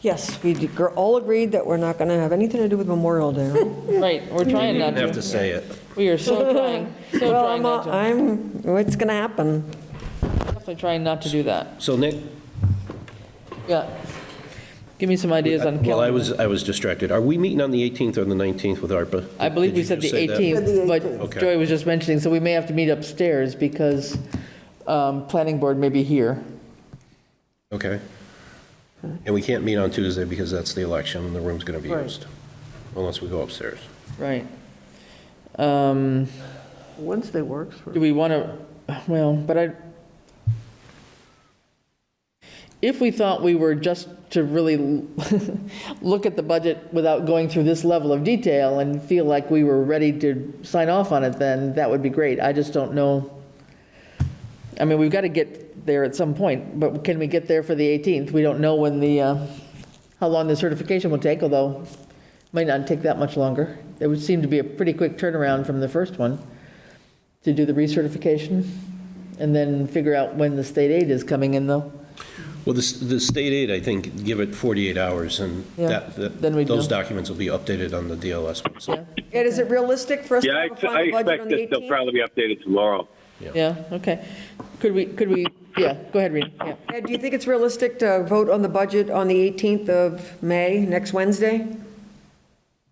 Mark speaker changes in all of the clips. Speaker 1: Yes, we did- gr- all agreed that we're not going to have anything to do with Memorial Day. right?
Speaker 2: Right, we're trying not
Speaker 3: have to
Speaker 2: to.
Speaker 3: say it.
Speaker 2: We are so trying, so
Speaker 1: Well,
Speaker 2: trying
Speaker 1: I'm,
Speaker 2: not
Speaker 1: uh,
Speaker 2: to,
Speaker 1: I'm, it's going to happen.
Speaker 2: definitely trying not to do that.
Speaker 3: So Nick,
Speaker 2: Yeah. Give me some ideas on
Speaker 3: well, I
Speaker 2: calendar.
Speaker 3: was, I was distracted. Are we meeting on the 18th or the 19th with ARPA?
Speaker 2: I believe
Speaker 3: Did
Speaker 2: we
Speaker 3: you
Speaker 2: said the
Speaker 3: just say that?
Speaker 2: 18th, but
Speaker 3: Okay.
Speaker 2: Joy was just mentioning, so we may have to meet upstairs because um, planning board may be here.
Speaker 3: Okay. And we can't meet on Tuesday because that's the election and the room's going to be
Speaker 2: Right.
Speaker 3: used, unless we go upstairs.
Speaker 2: Right. Um,
Speaker 4: Wednesday works for,
Speaker 2: Do we want to, well, but I, if we thought we were just to really look at the budget without going through this level of detail and feel like we were ready to sign off on it, then that would be great. I just don't know. I mean, we've got to get there at some point, but can we get there for the 18th? We don't know when the, uh, how long the certification will take, although it might not take that much longer. It would seem to be a pretty quick turnaround from the first one to do the recertification and then figure out when the state aid is coming in though.
Speaker 3: Well, the, s- the state aid, I think, give it 48 hours and
Speaker 2: Yeah,
Speaker 3: that, that-
Speaker 2: then we'd
Speaker 3: those
Speaker 2: know.
Speaker 3: documents will be updated on the DLS website.
Speaker 1: Ed, is it realistic for us to
Speaker 5: Yeah, I
Speaker 1: have a
Speaker 5: ex- I
Speaker 1: final budget on
Speaker 5: expect
Speaker 1: the
Speaker 5: that they'll
Speaker 1: 18th?
Speaker 5: probably be updated tomorrow.
Speaker 2: Yeah, okay. Could we, could we, yeah, go ahead, Rita, yeah.
Speaker 1: Ed, do you think it's realistic to vote on the budget on the 18th of May, next Wednesday?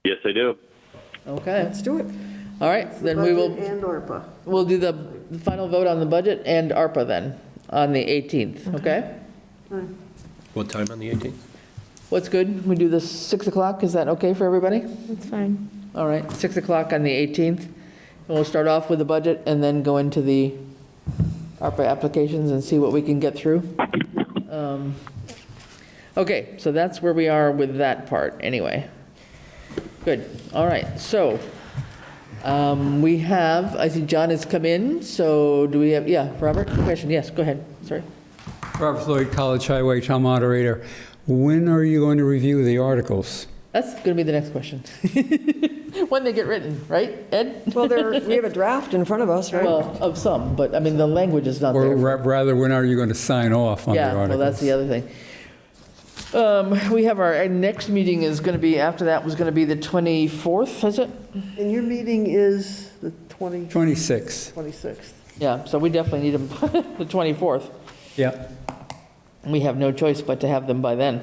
Speaker 5: Yes, I do.
Speaker 2: Okay,
Speaker 1: Let's do it.
Speaker 2: all right, then we
Speaker 4: budget
Speaker 2: will,
Speaker 4: and ARPA.
Speaker 2: we'll do the final vote on the budget and ARPA then, on the 18th, okay?
Speaker 3: What time on the 18th?
Speaker 2: What's good? We do the 6 o'clock, is that okay for everybody?
Speaker 6: That's fine.
Speaker 2: All right, 6 o'clock on the 18th. And we'll start off with the budget and then go into the ARPA applications and see what we can get through. Um, Okay, so that's where we are with that part, anyway. Good, all right, so um, we have, I see John has come in, so do we have, yeah, Robert, question, yes, go ahead, sorry.
Speaker 7: Robert Floyd, College Highway Town Moderator. When are you going to review the articles?
Speaker 2: That's going to be the next question. When they get written, right, Ed?
Speaker 1: Well, there, we have a draft in front of us, right?
Speaker 2: Well, of some, but I mean, the language is not there.
Speaker 7: Or ra- rather, when are you going to sign off on the
Speaker 2: Yeah,
Speaker 7: articles?
Speaker 2: well, that's the other thing. Um, We have our, our next meeting is going to be, after that was going to be the 24th, is it?
Speaker 4: And your meeting is the 20,
Speaker 7: 26.
Speaker 4: 26th.
Speaker 2: Yeah, so we definitely need them the 24th.
Speaker 7: Yeah.
Speaker 2: We have no choice but to have them by then.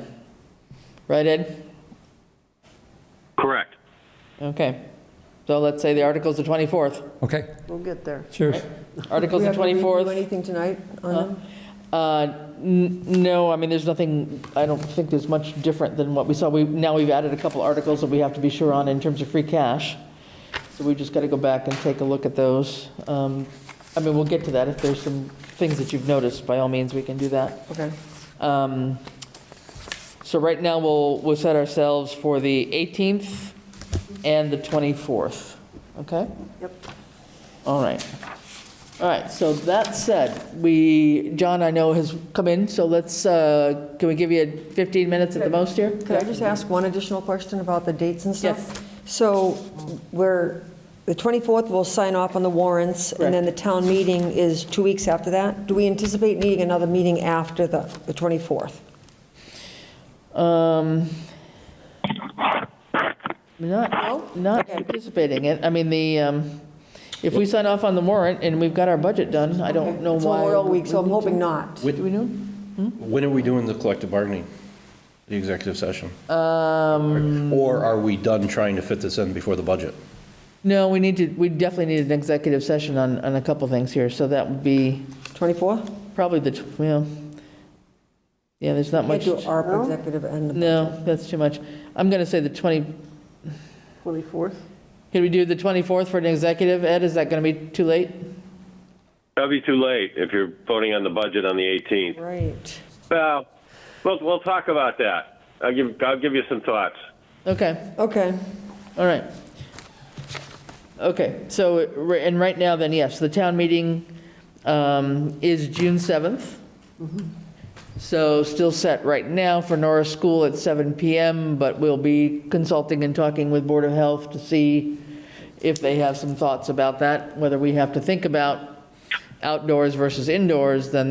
Speaker 2: Right, Ed?
Speaker 5: Correct.
Speaker 2: Okay. So let's say the article's the 24th.
Speaker 7: Okay,
Speaker 4: We'll get there.
Speaker 7: cheers.
Speaker 2: Article's
Speaker 1: We
Speaker 2: the
Speaker 1: have to review
Speaker 2: 24th.
Speaker 1: Anything tonight on
Speaker 2: Huh?
Speaker 1: them?
Speaker 2: Uh, n- No, I mean, there's nothing, I don't think there's much different than what we saw. We, now we've added a couple articles that we have to be sure on in terms of free cash. So we've just got to go back and take a look at those. Um, I mean, we'll get to that. If there's some things that you've noticed, by all means, we can do that.
Speaker 1: Okay.
Speaker 2: Um, So right now, we'll, we'll set ourselves for the 18th and the 24th, okay?
Speaker 4: Yep.
Speaker 2: All right. All right, so that said, we, John, I know has come in, so let's, uh, can we give you 15 minutes at the most here?
Speaker 1: Could I just ask one additional question about the dates and stuff?
Speaker 2: Yes.
Speaker 1: So we're, the 24th, we'll sign off on the warrants, and then the town meeting is two weeks after that? Do we anticipate needing another meeting after the the 24th?
Speaker 2: Um, Not, not anticipating it. I mean, the, um, if we sign off on the warrant and we've got our budget done, I don't know
Speaker 1: It's
Speaker 2: why.
Speaker 1: Memorial Week, so I'm
Speaker 2: we need to.
Speaker 1: hoping not.
Speaker 2: Do we know? Hmm?
Speaker 3: When are we doing the collective bargaining, the executive session?
Speaker 2: Um,
Speaker 3: Or are we done trying to fit this in before the budget?
Speaker 2: No, we need to, we definitely need an executive session on, on a couple things here, so that would be
Speaker 1: 24th?
Speaker 2: probably the, tw- well, yeah, there's not
Speaker 1: Can't
Speaker 2: much.
Speaker 1: do ARPA executive and the
Speaker 2: No, that's too much. I'm going to say the 20,
Speaker 4: 24th?
Speaker 2: Can we do the 24th for an executive, Ed? Is that going to be too late?
Speaker 5: That'll be too late if you're voting on the budget on the 18th.
Speaker 1: Right.
Speaker 5: Well, we'll, we'll talk about that. I'll give, I'll give you some thoughts.
Speaker 2: Okay,
Speaker 1: Okay.
Speaker 2: all right. Okay, so, ri- and right now then, yes, the town meeting um, is June 7th. So still set right now for Norris School at 7 PM, but we'll be consulting and talking with Board of Health to see if they have some thoughts about that, whether we have to think about outdoors versus indoors, then